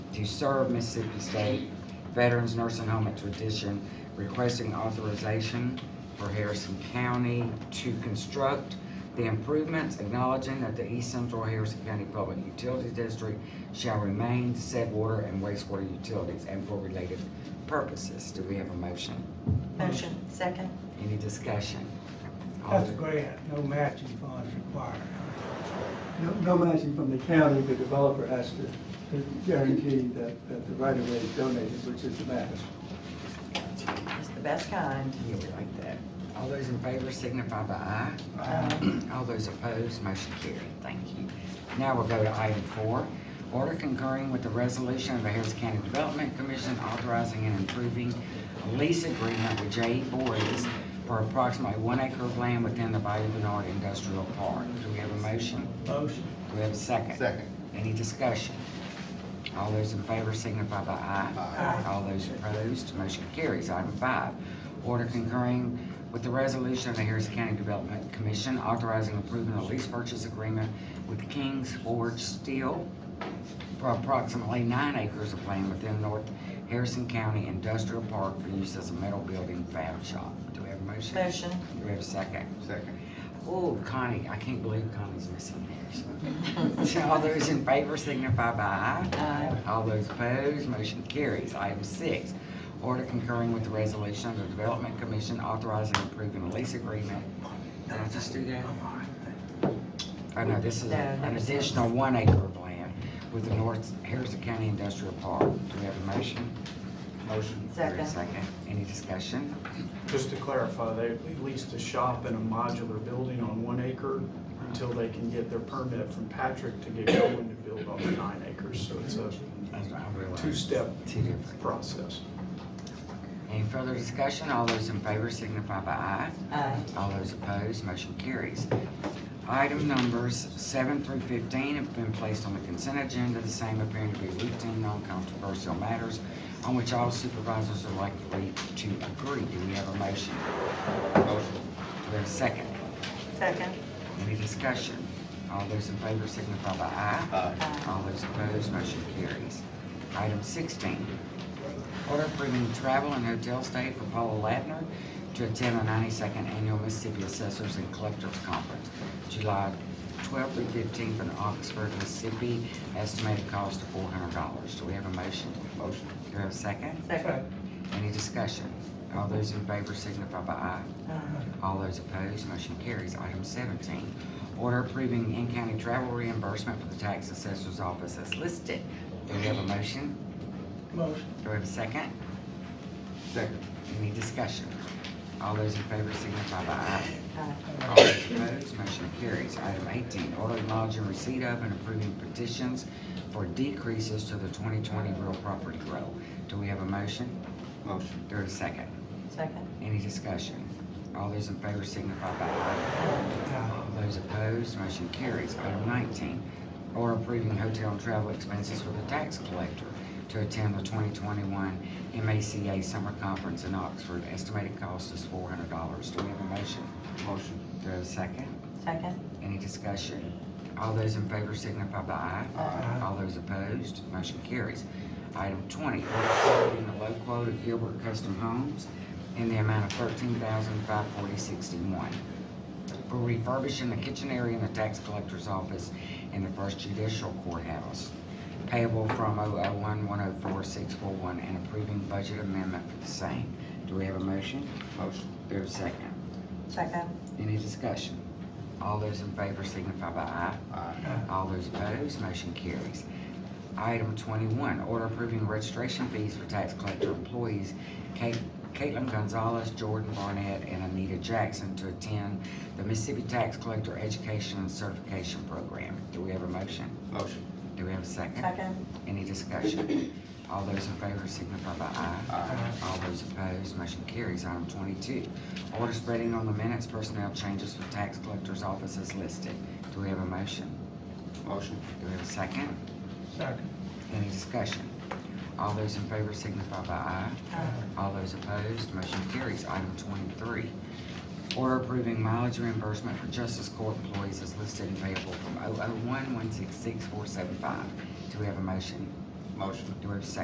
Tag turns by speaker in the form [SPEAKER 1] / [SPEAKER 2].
[SPEAKER 1] to serve Mississippi State Veterans Nursing Home at Tradition, requesting authorization for Harrison County to construct the improvements, acknowledging that the East Central Harrison County Public Utility District shall remain said water and wastewater utilities and for related purposes. Do we have a motion?
[SPEAKER 2] Motion, second.
[SPEAKER 1] Any discussion? All
[SPEAKER 3] That's a
[SPEAKER 1] in-
[SPEAKER 3] grant, no matching funds required.
[SPEAKER 4] No, no matching from the county, the developer has to to guarantee that, that the right of way is donated, which is the match.
[SPEAKER 2] It's the best kind.
[SPEAKER 1] Yeah, we like that. All those in favor signify by aye. All those opposed, motion carried. Thank you. Now we'll go to item four. Order concurring with the resolution of the Harris County Development Commission authorizing and improving a lease agreement with J. E. Boys for approximately one acre of land within the Bayou Bernard Industrial Park. Do we have a motion?
[SPEAKER 3] Motion,
[SPEAKER 1] Do we have a second?
[SPEAKER 5] Second.
[SPEAKER 1] Any discussion? All those in favor signify by aye.
[SPEAKER 5] Aye.
[SPEAKER 1] All those opposed, motion carries. Item five, order concurring with the resolution of the Harrison County Development Commission authorizing approving a lease purchase agreement with King's Forge Steel for approximately nine acres of land within North Harrison County Industrial Park for use as a metal building fab shop. Do we have a motion?
[SPEAKER 2] Motion.
[SPEAKER 1] Do we have a second?
[SPEAKER 5] Second.
[SPEAKER 1] Oh, Connie, I can't believe Connie's missing there. so. All those in favor signify by aye.
[SPEAKER 2] Aye.
[SPEAKER 1] All those opposed, motion carries. Item six, order concurring with the resolution of the Development Commission authorizing and approving a lease agreement. Did I just do that? Oh, no, this is
[SPEAKER 2] No,
[SPEAKER 1] an
[SPEAKER 2] number six.
[SPEAKER 1] additional one acre of land with the North Harrison County Industrial Park. Do we have a motion?
[SPEAKER 5] Motion.
[SPEAKER 1] Is there a
[SPEAKER 2] Second.
[SPEAKER 1] Second. Any discussion?
[SPEAKER 6] Just to clarify, they leased a shop in a modular building on one acre until they can get their permit from Patrick to get going to build on the nine acres. So it's a
[SPEAKER 1] I realize-
[SPEAKER 6] two-step
[SPEAKER 1] Two different.
[SPEAKER 6] process.
[SPEAKER 1] Any further discussion? All those in favor signify by aye.
[SPEAKER 2] Aye.
[SPEAKER 1] All those opposed, motion carries. Item numbers seven through fifteen have been placed on the consent agenda, the same appearing to be routine, non-controversial matters on which all supervisors are likely to agree. Do we have a motion?
[SPEAKER 5] Motion.
[SPEAKER 1] Do we have a second?
[SPEAKER 2] Second.
[SPEAKER 1] Any discussion? All those in favor signify by aye.
[SPEAKER 5] Aye.
[SPEAKER 1] All those opposed, motion carries. Item sixteen, order approving travel and hotel stay for Paula Latner to attend the ninety-second annual Mississippi Assessors and Collectors Conference, July twelfth through fifteenth in Oxford, Mississippi, estimated cost of four hundred dollars. Do we have a motion?
[SPEAKER 5] Motion.
[SPEAKER 1] Do we have a second?
[SPEAKER 2] Second.
[SPEAKER 1] Any discussion? All those in favor signify by aye.
[SPEAKER 2] Aye.
[SPEAKER 1] All those opposed, motion carries. Item seventeen, order approving in-county travel reimbursement for the tax assessor's office as listed. Do we have a motion?
[SPEAKER 3] motion.
[SPEAKER 1] Do we have a second?
[SPEAKER 5] Second.
[SPEAKER 1] Any discussion? All those in favor signify by aye.
[SPEAKER 2] Aye.
[SPEAKER 1] All those opposed, motion carries. Item eighteen, order acknowledging receipt of and approving petitions for decreases to the twenty twenty real property roll. Do we have a motion?
[SPEAKER 5] Motion.
[SPEAKER 1] Do we have a second?
[SPEAKER 2] Second.
[SPEAKER 1] Any discussion? All those in favor signify by aye.
[SPEAKER 3] Aye.
[SPEAKER 1] All Those opposed, motion carries. Item nineteen, order approving hotel and travel expenses for the tax collector to attend the twenty twenty-one MACA Summer Conference in Oxford. Estimated cost is four hundred dollars. Do we have a motion?
[SPEAKER 5] Motion.
[SPEAKER 1] Do we have a second?
[SPEAKER 2] Second.
[SPEAKER 1] Any discussion? All those in favor signify by aye.
[SPEAKER 5] Aye.
[SPEAKER 1] All those opposed, motion carries. Item twenty, order approving the low quote of Gilbert Custom Homes in the amount of thirteen thousand five forty sixty-one for refurbishing the kitchen area in the tax collector's office in the first judicial courthouse payable from 001104641 and approving budget amendment for the same. Do we have a motion?
[SPEAKER 5] Motion.
[SPEAKER 1] Do we have a second?
[SPEAKER 2] Second.
[SPEAKER 1] Any discussion? All those in favor signify by aye.
[SPEAKER 5] Aye.
[SPEAKER 1] All those opposed, motion carries. Item twenty-one, order approving registration fees for tax collector employees Kate- Caitlin Gonzalez, Jordan Barnett, and Anita Jackson to attend the Mississippi Tax Collector Education and Certification Program. Do we have a motion?
[SPEAKER 5] Motion.
[SPEAKER 1] Do we have a second?
[SPEAKER 2] Second.
[SPEAKER 1] Any discussion? All those in favor signify by aye.
[SPEAKER 5] Aye.
[SPEAKER 1] All those opposed, motion carries. Item twenty-two, order spreading on the minutes personnel changes for tax collector's office as listed. Do we have a motion?
[SPEAKER 5] Motion.
[SPEAKER 1] Do we have a second?
[SPEAKER 3] Second.
[SPEAKER 1] Any discussion? All those in favor signify by aye.
[SPEAKER 2] Aye.
[SPEAKER 1] All those opposed, motion carries. Item twenty-three, order approving mileage reimbursement for justice court employees oh as listed and payable from 001166475. Do we have a motion?
[SPEAKER 5] Motion.
[SPEAKER 1] Do we have a second?